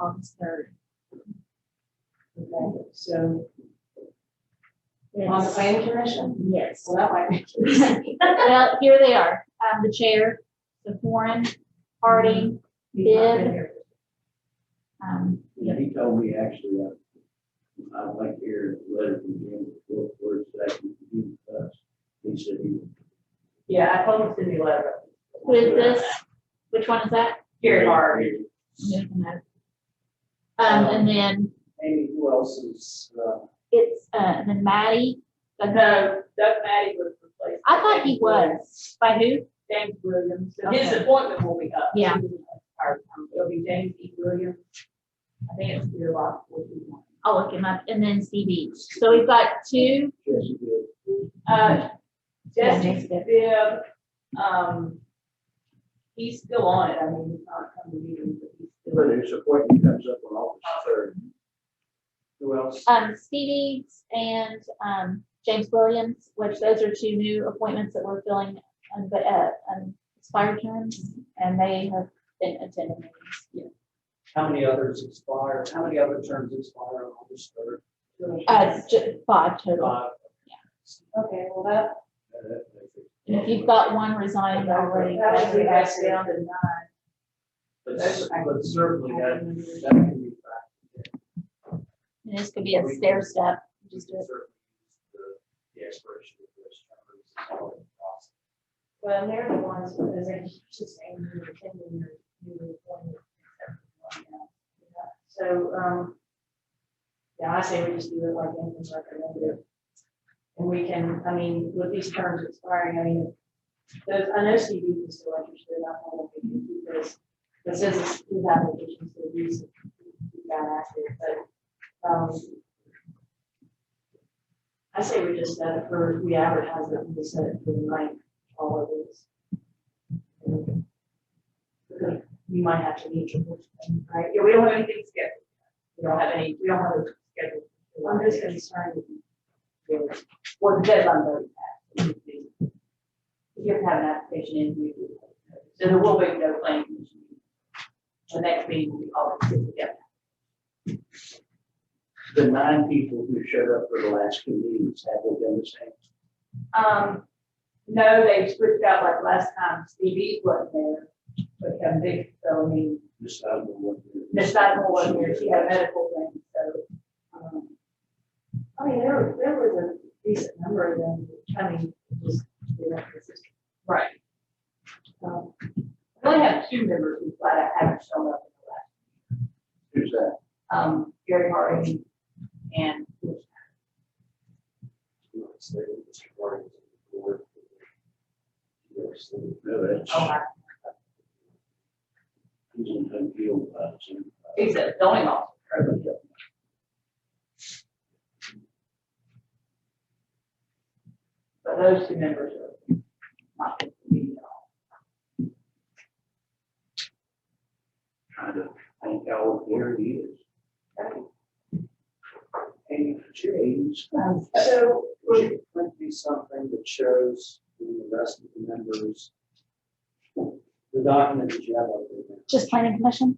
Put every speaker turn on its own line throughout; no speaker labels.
August third. Okay, so on the
Yes.
planning commission,
Yes.
well, that might make.
Well, here they are, um, the chair, the foreign, Harding, Bid. um,
Yeah, he told me actually, uh, I'd like to hear a letter from him, what words that he can give us. He said he would.
Yeah, I told him to be letter.
who is this? Which one is that?
Gary Hart,
Um, and then
Amy, who else is, uh,
it's, uh, and then Maddie,
but no, Doug Matty was replaced.
I thought he was, by who?
James Williams, So his
Okay.
appointment will be up.
Yeah.
Our, um, It'll be James E. Williams. I think it's your lot forty-one.
I'll look him up, and then Stevie. So we've got two,
Jesse Bill.
Uh,
Yeah,
Jesse
James Bibb.
Bibb, um, he's still on it, I mean, he's not coming to meetings, but he's still.
But his appointment comes up on August
Uh,
third. Who else?
um, Stevie and, um, James Williams, which those are two new appointments that we're filling, um, but, uh, um, expired terms, and they have been attending meetings.
How many others expire? How many other terms expire on August third?
Uh, ju- five total.
Five.
Okay, well, that,
Uh, that makes it-
And If you've got one resigned already.
that would be back down to nine.
But that's- but certainly that, that can be factored in.
And This could be a stair step, just do it.
Certainly the- The expiration of those terms is all in the process.
Well, and they're the ones, because they're just saying you're attending your, your appointment. So, um, yeah, I say we just do it like anything's recommended. And we can, I mean, with these terms expiring, I mean, those, I know Steve is still interested, I don't know if he can do this. But since it's his application, so he's, he got active, but, um, I say we just set it for, we advertise it, and we set it for the night all of these. Because You might have to meet your, person, right?
Yeah, we don't have anything scheduled.
We don't have any, we don't have a schedule. I'm just concerned. with-
Well, the deadline already passed. If you have to have an application in, we do. So there will be no planning commission. meeting. The next meeting will be all together.
The nine people who showed up for the last two meetings, have they done the same?
Um, no, they switched out like last time, Stevie wasn't there, but Kevin Vick, so I mean,
This time we want to-
Miss Dynamo wasn't there, she had a medical thing, so. um,
I mean, there, there was a decent number of them, I mean, just, you know, it's just,
Right.
um,
We only have two members who flat out haven't shown up in the last,
Who's that?
um, Gary Harding and oh,
No, that's-
Oh, my,
he's in Huntsville, uh, Jim.
he's a zoning officer. But those two members are not going to be at all.
Trying to think how old Gary is. And James,
So,
would you print me something that shows the rest of the members? The document that you have up there.
Just planning commission?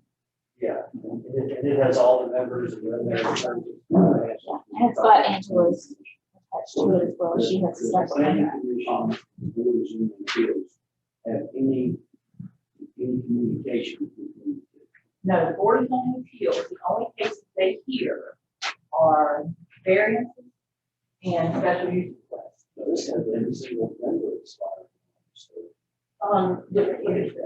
Yeah, and it, and it has all the members and then there's.
And it's got Angela's attached to it as well. She has stuff on
Planning
that.
commission, boards and appeals have any, any communication between
No, the board of home appeals, the only cases they hear are variances and special use requests.
Now, this has every single member expired. so,
Um, different leadership.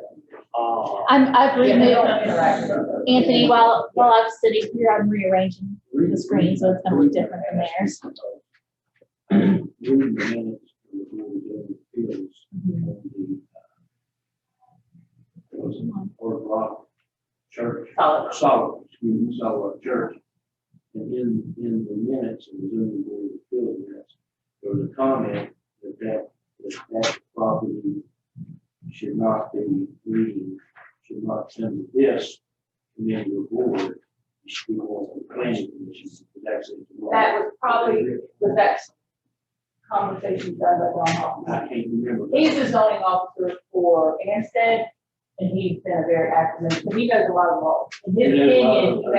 Ah,
I'm, I've
Yeah, they
removed,
don't interact
uh,
with us.
Anthony, while, while I'm sitting here, I'm rearranging the screen, so it's gonna look different from theirs.
Reading the minutes from the board of Zoning appeals
Mm-hmm.
on the, uh, it was on Fort Rock Church.
Solid.
Solid, excuse me, Solid Rock Church. And in, in the minutes of the zoning board of appeals, minutes, there was a comment that that, that that property should not be reading, should not send this committee or board. It should be on the planning commission, it's actually.
That was probably, was that conversation done by Ron
I
Hoffman?
can't remember.
He's the zoning officer for Anstead, and he's been a very active, member, so he knows a lot of law. And his
He knows a lot of
opinion